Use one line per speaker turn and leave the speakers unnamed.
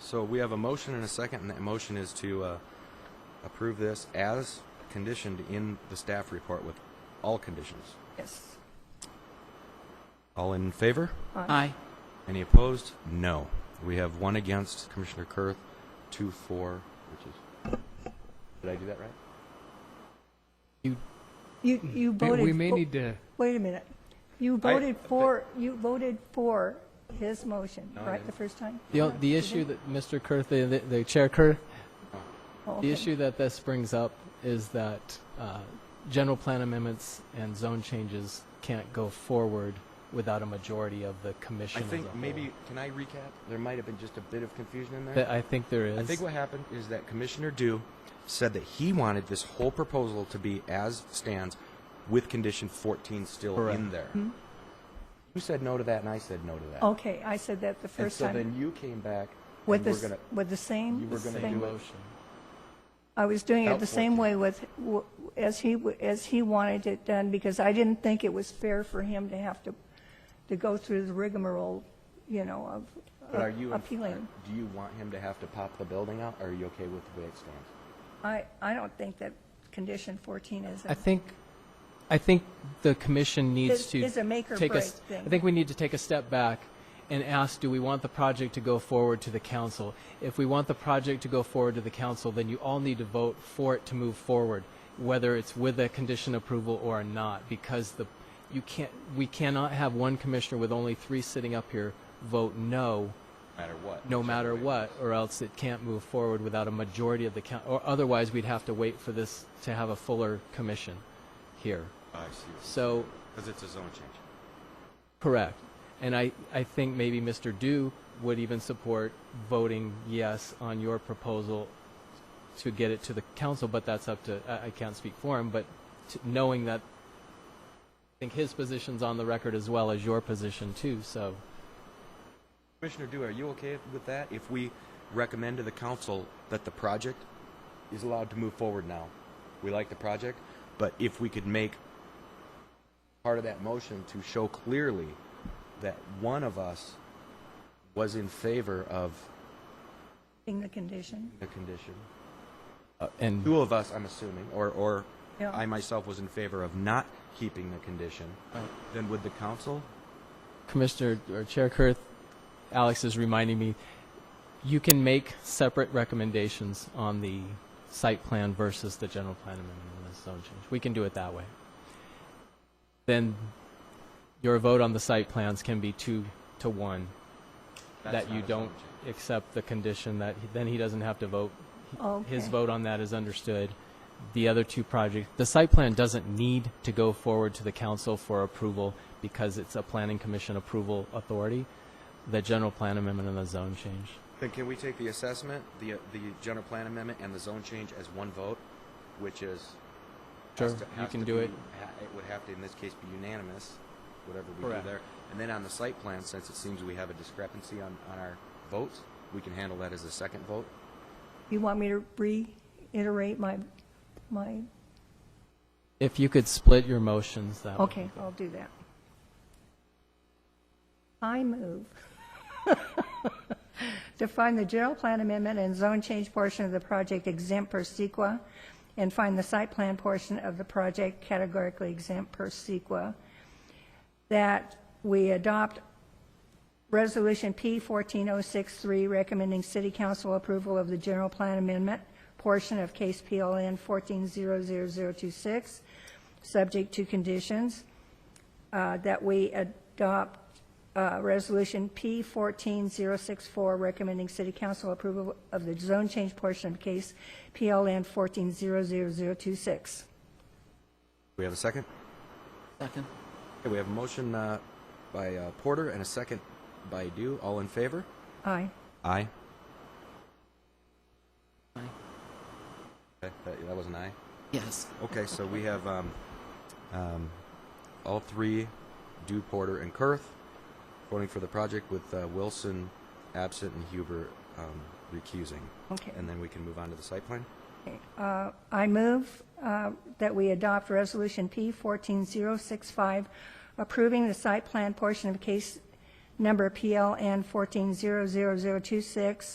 So we have a motion and a second, and that motion is to uh, approve this as conditioned in the staff report with all conditions.
Yes.
All in favor?
Aye.
Any opposed? No. We have one against, Commissioner Kurth, two for, which is, did I do that right?
You,
Hmm.
you voted. Oh.
We may
fo-
need to,
Wait a minute. You
I-
voted for, you voted for his motion,
No, I
right,
didn't.
the first time?
The, o- the issue that Mr. Kurth, the, the- the Chair Kurth,
Oh, okay.
the issue that this brings up is that uh, general plan amendments and zone changes can't go forward without a majority of the commission.
I
as a
think
whole.
maybe, can I recap? There might have been just a bit of confusion in there.
That I think there is.
I think what happened is that Commissioner Dew said that he wanted this whole proposal to be as stands with condition 14 still
Correct.
in there.
Mm-hmm.
You said no to that, and I said no to that.
Okay, I said that the
and
Oh, first
so
time.
then you came back
With
and
the,
we're
s-
gonna,
with the
you
same
were gonna
thing.
do it.
motion.
I was doing it
Without
the
14.
same way with, w- as he, w- as he wanted it done, because I didn't think it was fair for him to have to, to go through the rigmarole, you know,
But are
of
you in-
appealing.
Do you want him to have to pop the building out, or are you okay with the way it stands?
I, I don't think that condition 14 is, a-
I think, I think the commission needs
Is-
to
is a make or
take
break
s-
thing.
I think we need to take a step back and ask, do we want the project to go forward to the council? If we want the project to go forward to the council, then you all need to vote for it to move forward, whether it's with a condition approval or not, because the, you can't, we cannot have one commissioner with only three sitting up here vote
No
no
matter what.
no matter what, or else it can't move forward without a majority of the coun, or otherwise we'd have to wait for this to have a fuller commission here.
I see.
So,
Because it's a zone change.
correct. And I, I think maybe Mr. Dew would even support voting yes on your proposal to get it to the council, but that's up to, I, I can't speak for him, but t knowing that, I think his position's on the record as well as your position too, so.
Commissioner Dew, are you okay with that? If we recommend to the council that the project is allowed to move forward now? We like the project, but if we could make part of that motion to show clearly that one of us was in favor of
being the condition.
the condition.
uh, And
Two of us, I'm assuming, or, or
Yeah.
I myself was in favor of not keeping the condition, then would the council?
Commissioner or Chair Kurth, Alex is reminding me, you can make separate recommendations on the site plan versus the general plan amendment and the zone change. We can do it that way. Then your vote on the site plans can be two to one, that you don't accept the condition that, he- then he doesn't have to vote. He- His
Okay.
vote on that is understood. The other two projects, the site plan doesn't need to go forward to the council for approval because it's a planning commission approval authority. The general plan amendment and the zone change.
Then can we take the assessment, the, uh, the general plan amendment and the zone change as one vote, which is? has
Sure,
to-
you
has
can
to
do
be-
it.
ha- It would have to, in this case, be unanimous, whatever we do
Correct.
there. And then on the site plan, since it seems we have a discrepancy on, on our votes, we can handle that as a second vote?
You want me to reiterate my, my,
If you could split your motions, that would.
okay, I'll do that. I move to find the general plan amendment and zone change portion of the project exempt per sequa and find the site plan portion of the project categorically exempt per sequa, that we adopt Resolution P 14063 recommending city council approval of the general plan amendment portion of case PLN 1400026, subject to conditions, uh, that we adopt uh, Resolution P 14064 recommending city council approval of the zone change portion of case PLN 1400026.
We have a second?
Second.
Okay, we have a motion, uh, by, uh, Porter and a second by Dew. All in favor?
Aye.
Aye.
Aye.
Okay, that, that was an aye.
Yes.
Okay, so we have um, um, all three, Dew, Porter, and Kurth, voting for the project with uh, Wilson absent and Huber um, recusing.
Okay.
And then we can move on to the site plan.
Uh, I move uh, that we adopt Resolution P 14065, approving the site plan portion of case number PLN 1400026,